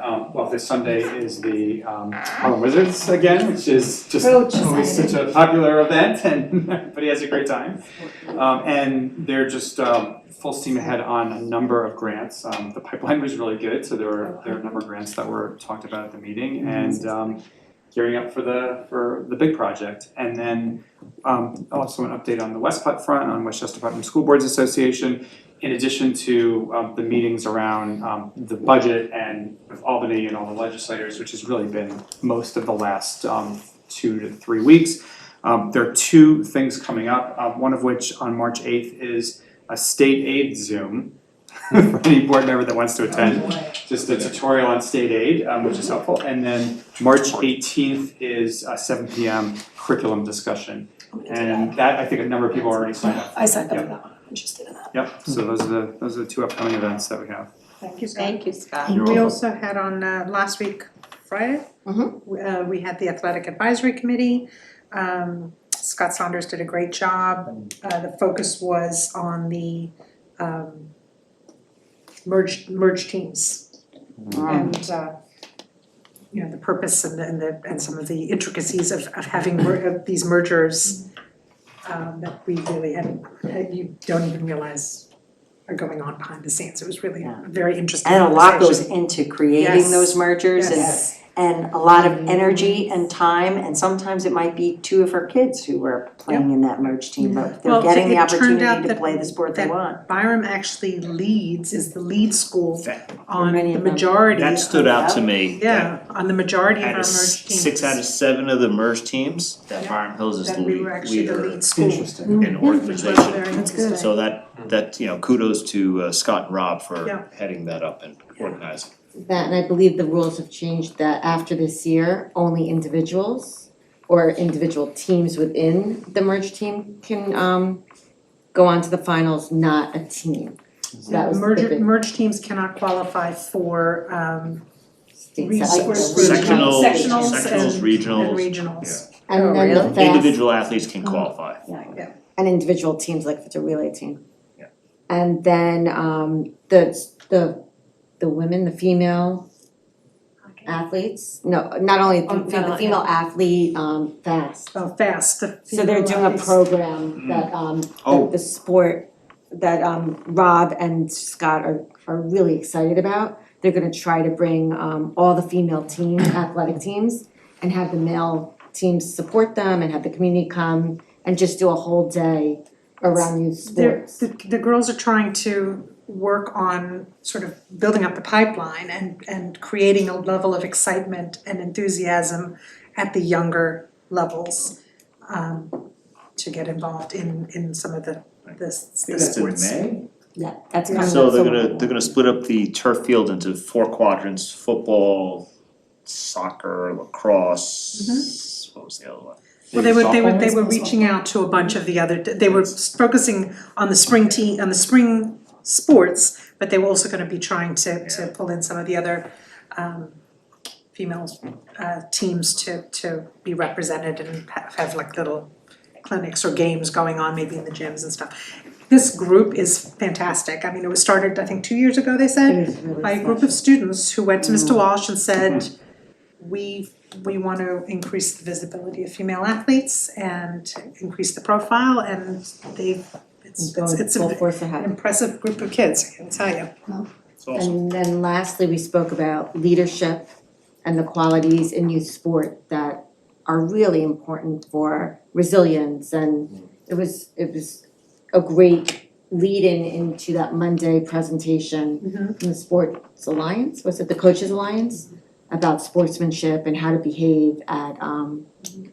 um, this Sunday is the um, Harlem Wizards again, which is just Oh, just always added. such a popular event, and everybody has a great time. Um, and they're just um, full steam ahead on a number of grants. Um, the pipeline was really good, so there were there were a number of grants that were talked about at the meeting, and um, gearing up for the for the big project, and then. Um, also, an update on the West Putt front on Westchester Putnam School Boards Association in addition to um the meetings around um the budget and with Albany and all the legislators, which has really been most of the last um two to three weeks. Um there are two things coming up, um one of which on March eighth is a state aid Zoom for any board member that wants to attend, just a tutorial on state aid, um which is helpful. And then March eighteenth is a seven P M curriculum discussion. And that, I think a number of people already signed up. I signed up for Yep. that one, I'm interested in that. Yep, so those are the, those are the two upcoming events that we have. Thank you, Scott. Thank you, Scott. And we also had on uh, last week, Friday, we- uh, we had the Athletic Advisory Committee. Um, Scott Saunders did a great job. Uh, The focus was on the um, merged, merged teams. Hmm. Um, And, uh, you know, the purpose and the- and the, and some of the intricacies of, of having mer- of these mergers um, that we really hadn't, that you don't even realize are going on behind the scenes. It was really a very interesting And a lot conversation. goes into creating Yes. those mergers and, Yes. Mm-hmm. and a lot of energy and time, and sometimes it might be two of her kids who were playing in that merge team, but Well, they're getting the it turned out opportunity to that- play the sport they that- want. Byram actually leads, is the lead school That, on many the of them. majority. that stood out to me. that Yeah, on the majority of Out our of merged s- teams. six out of seven of the merged teams, that Yeah. Byram Hills is the That lead, we were actually the leader lead school. in organization. Which was very That's good. interesting. So that, that, you know, kudos to uh, Scott and Rob Yeah. for heading that up and organizing. That, and I believe the rules have changed that after this year, only individuals or individual teams within the merged team can um go on to the finals, not a team. So that was the Merger, big merged teams cannot qualify for um state resource setback. Sectionals Sectionals, sectionals, and- and regionals, regionals. And then Oh, the fast, individual athletes can qualify. and individual teams, like if it's a relay team. Yeah. And then um the the the women, the female athletes, no, not only Oh, the female, the female athlete, um fast. So Oh, fast, the So they're doing a female program that um Oh. that the sport that um Rob and Scott are are really excited about. They're gonna try to bring um all the female team athletic teams and have the male teams support them and have the community come and just do a whole day around youth They're, sports. the, the girls are trying to work on sort of building up the pipeline and, and creating a level of excitement and enthusiasm at the younger levels um, to get involved in, in some of the, the, s- the That's in sports. May? Yeah, that's kind of. So they're that's a- gonna, they're gonna split up the turf field into four quadrants, football, soccer, lacrosse, Mm-hmm. what was the other one? Well, they were, they were, they were reaching out to a bunch of the other, they were s- focusing on the spring team, on the spring sports, but they were also gonna be trying to, to Yeah. pull in some of the other, um, female, uh, teams to, to be represented and ha- have like little clinics or games going on, maybe in the gyms and stuff. This group is fantastic, I mean, it was started, I think, two years ago, they said? It is really by a group of students who went to Mr. Walsh and said, we, we want to increase the visibility of female athletes and increase the profile, and they, it's, it's, it's Full an force ahead. impressive group of kids, I can tell you. It's awesome. And then lastly, we spoke about leadership and the qualities in youth sport that are really important for resilience and it was, it was a great lead-in into that Monday presentation from the Sports Alliance, was it the Coaches Alliance? About sportsmanship and how to behave at um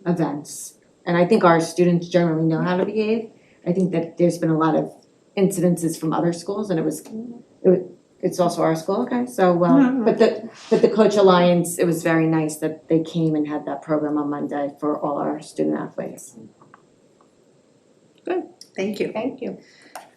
events. And I think our students generally know how to behave. I think that there's been a lot of incidences from other schools and it was, it wa- it's also our school, okay, so um, but the, but the Coach Alliance, it was very nice that they came and had that program on Monday for all our student athletes. Thank you. Thank you.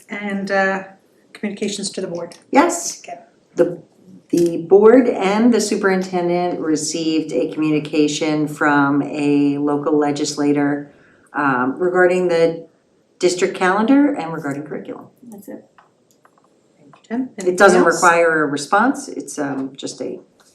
And, uh, communications to the board. Yes. Okay. The, the board and the superintendent received a communication from a local legislator um, regarding the district calendar and regarding curriculum. That's it. Tim, It doesn't anything else? require a response, it's um, just a